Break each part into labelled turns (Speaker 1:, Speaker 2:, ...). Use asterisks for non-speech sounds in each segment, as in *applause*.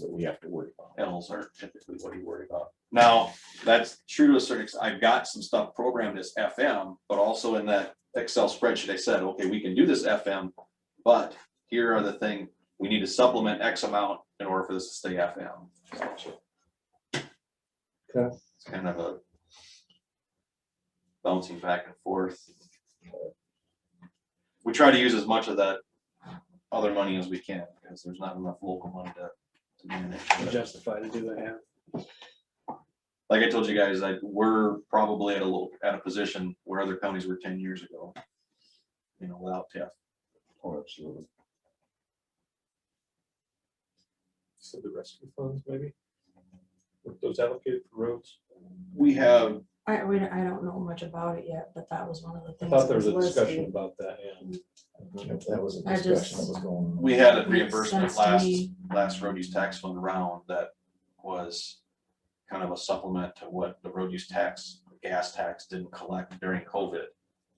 Speaker 1: that we have to worry about.
Speaker 2: Animals aren't typically what you worry about. Now, that's true to a certain extent. I've got some stuff programmed as FM, but also in that Excel spreadsheet, I said, okay, we can do this FM. But here are the thing, we need to supplement X amount in order for this to stay FM.
Speaker 1: Okay.
Speaker 2: It's kind of a bouncing back and forth. We try to use as much of that other money as we can, because there's not enough local money to to manage. but-
Speaker 3: justify to do the half.
Speaker 2: like I told you guys, like we're probably at a little, at a position where other counties were ten years ago. You know, without TIF.
Speaker 1: Oh, absolutely.
Speaker 4: So the rescue funds, maybe? Were Those allocated for roads?
Speaker 2: We have,
Speaker 5: I, we, I don't know much about it yet, but that was one of the
Speaker 4: I
Speaker 5: things.
Speaker 4: thought
Speaker 5: that
Speaker 4: there was a discussion
Speaker 5: listed.
Speaker 4: about that, yeah.
Speaker 1: That was a
Speaker 5: I
Speaker 1: discussion that
Speaker 5: just-
Speaker 1: was going on.
Speaker 2: we had a
Speaker 5: Makes
Speaker 2: reimbursement
Speaker 5: sense to
Speaker 2: last,
Speaker 5: me.
Speaker 2: last road use tax fund round that was. Kind of a supplement to what the road use tax, gas tax didn't collect during COVID.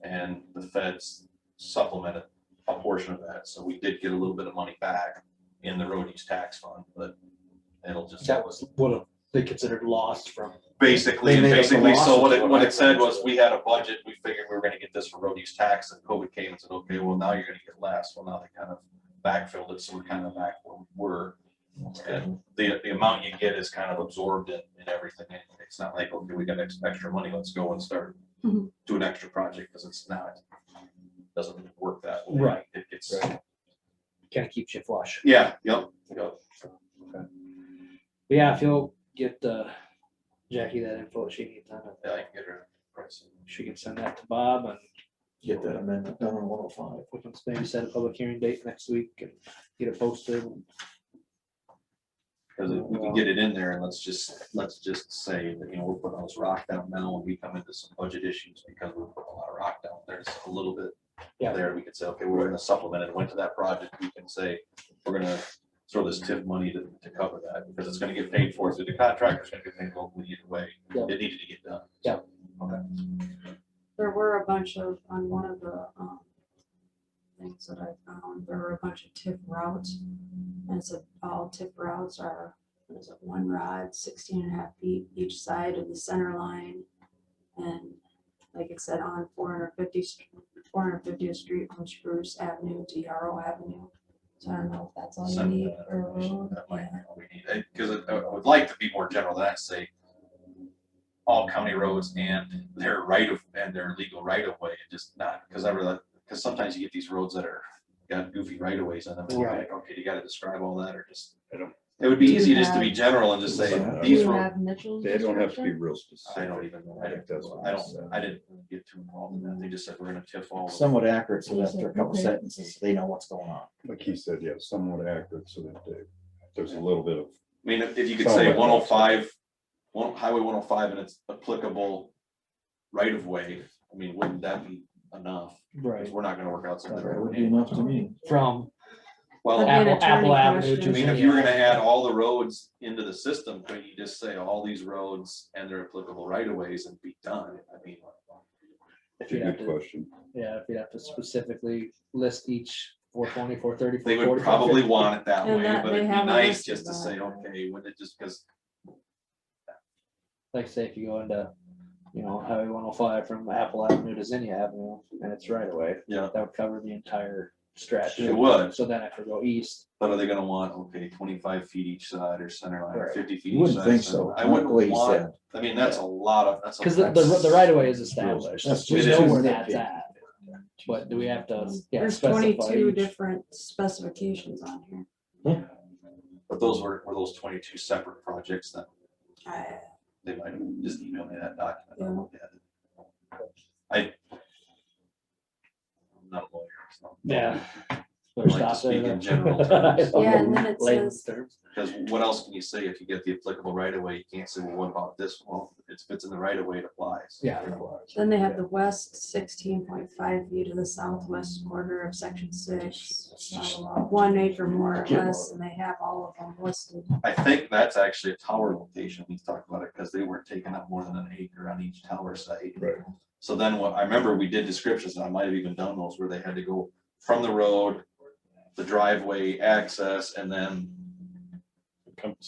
Speaker 2: And the feds supplemented a portion of that, so we did get a little bit of money back in the road use tax fund, but it'll just.
Speaker 3: That was what they considered lost from.
Speaker 2: Basically,
Speaker 1: They made up the
Speaker 2: basically, so
Speaker 1: loss
Speaker 2: what
Speaker 1: of
Speaker 2: it,
Speaker 1: what
Speaker 2: what
Speaker 1: I
Speaker 2: it said was,
Speaker 1: thought.
Speaker 2: we had a budget, we figured we were gonna get this for road use tax, and COVID came and said, okay, well, now you're gonna get less, well, now they kind of backfilled it, so we're kind of back where we were. And the, the amount you get is kind of absorbed in, in everything, anyway. it's not like, okay, we got ex- extra money, let's go and start
Speaker 5: Mhm.
Speaker 2: do an extra project, because it's not, doesn't work that way.
Speaker 3: Right.
Speaker 2: It gets,
Speaker 3: Right. Kind of keeps you flush.
Speaker 2: yeah, yep, yep.
Speaker 3: But Yeah, if you'll get uh, Jackie that info she needs on it,
Speaker 2: Yeah, I can get her price.
Speaker 3: she can send that to Bob and
Speaker 1: Get that amendment done on one oh five.
Speaker 3: we can maybe set a public hearing date next week and get it posted.
Speaker 2: Cause if we can get it in there and let's just, let's just say that, you know, we're putting all this rock down now and we come into some budget issues because we're putting a lot of rock down. There's a little bit.
Speaker 3: Yeah.
Speaker 2: There, we could say, okay, we're gonna supplement it, went to that project, we can say, we're gonna throw this TIF money to, to cover that, because it's gonna get paid for, so the contractor's gonna get paid locally either way.
Speaker 3: Yeah.
Speaker 2: It needed to get done.
Speaker 3: Yeah.
Speaker 2: Okay.
Speaker 5: There were a bunch of, on one of the, um, things that I found, there were a bunch of tip routes. And so all tip routes are, what is it, one rod, 16 and a half feet each side of the center line. And like it said, on 450, 450th Street from Spruce Avenue to Yarrow Avenue. So I don't know if that's all you
Speaker 2: Send
Speaker 5: need
Speaker 2: that
Speaker 5: for a
Speaker 2: information,
Speaker 5: road.
Speaker 2: that
Speaker 5: yeah.
Speaker 2: might be what we need, eh, Cause I- I would like to be more general than that, say. All county roads and their right of, and their legal right of way, and just not, cause I realize, cause sometimes you get these roads that are, got goofy right of ways on them. and you're like, Okay, you gotta describe all that, or just,
Speaker 6: I don't-
Speaker 2: it would be
Speaker 5: Do you
Speaker 2: easy just to
Speaker 5: have-
Speaker 2: be general and just say,
Speaker 1: Do
Speaker 5: Do
Speaker 2: these
Speaker 5: you
Speaker 2: roads.
Speaker 5: have Mitchell's?
Speaker 6: They don't have to be
Speaker 5: description?
Speaker 6: real
Speaker 2: I
Speaker 6: specific.
Speaker 2: don't even, know. I
Speaker 6: I think that's what
Speaker 2: don't,
Speaker 6: I
Speaker 2: I don't,
Speaker 6: said.
Speaker 2: I didn't get too involved in that, they just said, we're gonna tiff all. of them."
Speaker 1: Somewhat accurate, so
Speaker 5: Yeah,
Speaker 1: after a couple
Speaker 5: okay.
Speaker 1: sentences, they know what's going on.
Speaker 6: Like he said, yeah, somewhat accurate, so that they- there's a little bit of,
Speaker 2: I mean, if if you could
Speaker 6: Sounds
Speaker 2: say
Speaker 6: like-
Speaker 2: one oh five, one, highway one oh five and it's applicable right of way, I mean, wouldn't that be enough? Because
Speaker 3: Right.
Speaker 2: we're not gonna work out
Speaker 1: That
Speaker 2: something.
Speaker 1: would
Speaker 2: right
Speaker 1: be
Speaker 2: now.
Speaker 1: enough to me.
Speaker 3: From
Speaker 2: Well,
Speaker 5: That'd
Speaker 2: I
Speaker 5: be an
Speaker 3: Apple, Apple
Speaker 5: attorney
Speaker 3: Avenue to.
Speaker 5: question.
Speaker 2: mean, if you were gonna add all the roads into the system, couldn't you just say all these roads and their applicable right of ways and be done? I mean,
Speaker 6: it's a good question.
Speaker 3: Yeah, if you have to specifically list each 420, 430, 440.
Speaker 2: they would probably want it that
Speaker 5: And
Speaker 2: way,
Speaker 5: that-
Speaker 2: but
Speaker 5: they
Speaker 2: it'd be
Speaker 5: have a
Speaker 2: nice
Speaker 5: list
Speaker 2: just to
Speaker 5: of
Speaker 2: say,
Speaker 5: that.
Speaker 2: okay, when it just, because
Speaker 3: like say if you go into, you know, Highway one oh five from Apple Avenue to Zinnia Avenue, and it's right away.
Speaker 2: Yeah.
Speaker 3: That would cover the entire stretch.
Speaker 2: it would,
Speaker 3: So then if we go east,
Speaker 2: but are they gonna want, okay, twenty-five feet each side or center line, or
Speaker 3: Right.
Speaker 2: fifty feet?
Speaker 1: You
Speaker 2: each
Speaker 1: wouldn't
Speaker 2: side,
Speaker 1: think so.
Speaker 2: I wouldn't
Speaker 1: Like he
Speaker 2: want
Speaker 1: said.
Speaker 2: I mean, that's a lot of, that's. a-
Speaker 3: because the, the, the right of way is
Speaker 1: That's
Speaker 3: established,
Speaker 1: just
Speaker 3: we know
Speaker 2: too
Speaker 3: where
Speaker 1: nitpicky.
Speaker 3: that's at, but do we have to, yeah,
Speaker 5: There's
Speaker 3: specify
Speaker 5: twenty-two
Speaker 3: each?
Speaker 5: different specifications on here.
Speaker 2: But those were, were those twenty-two separate projects that
Speaker 5: I-
Speaker 2: they might have just emailed me that document. I'll look at it. I. I'm not a lawyer, so.
Speaker 3: Yeah.
Speaker 2: I
Speaker 3: Better
Speaker 2: like to
Speaker 3: stop
Speaker 2: speak in
Speaker 3: there. *laughs*
Speaker 2: general terms,
Speaker 5: Yeah, and then it
Speaker 3: Layman's
Speaker 5: says-
Speaker 3: terms.
Speaker 2: Because what else can you say if you get the applicable right of way? You can't say, well, what about this? Well, it's, if it's in the right of way, it applies.
Speaker 3: Yeah.
Speaker 5: Then they have the west sixteen point five feet of the southwest quarter of section six. blah, blah, blah, One acre more or less, and they have all of them listed.
Speaker 2: I think that's actually a tower location. We talked about it because they weren't taking up more than an acre on each tower site.
Speaker 6: Right.
Speaker 2: So then what, I remember we did descriptions and I might have even done those where they had to go from the road, the driveway access, and then
Speaker 4: compensation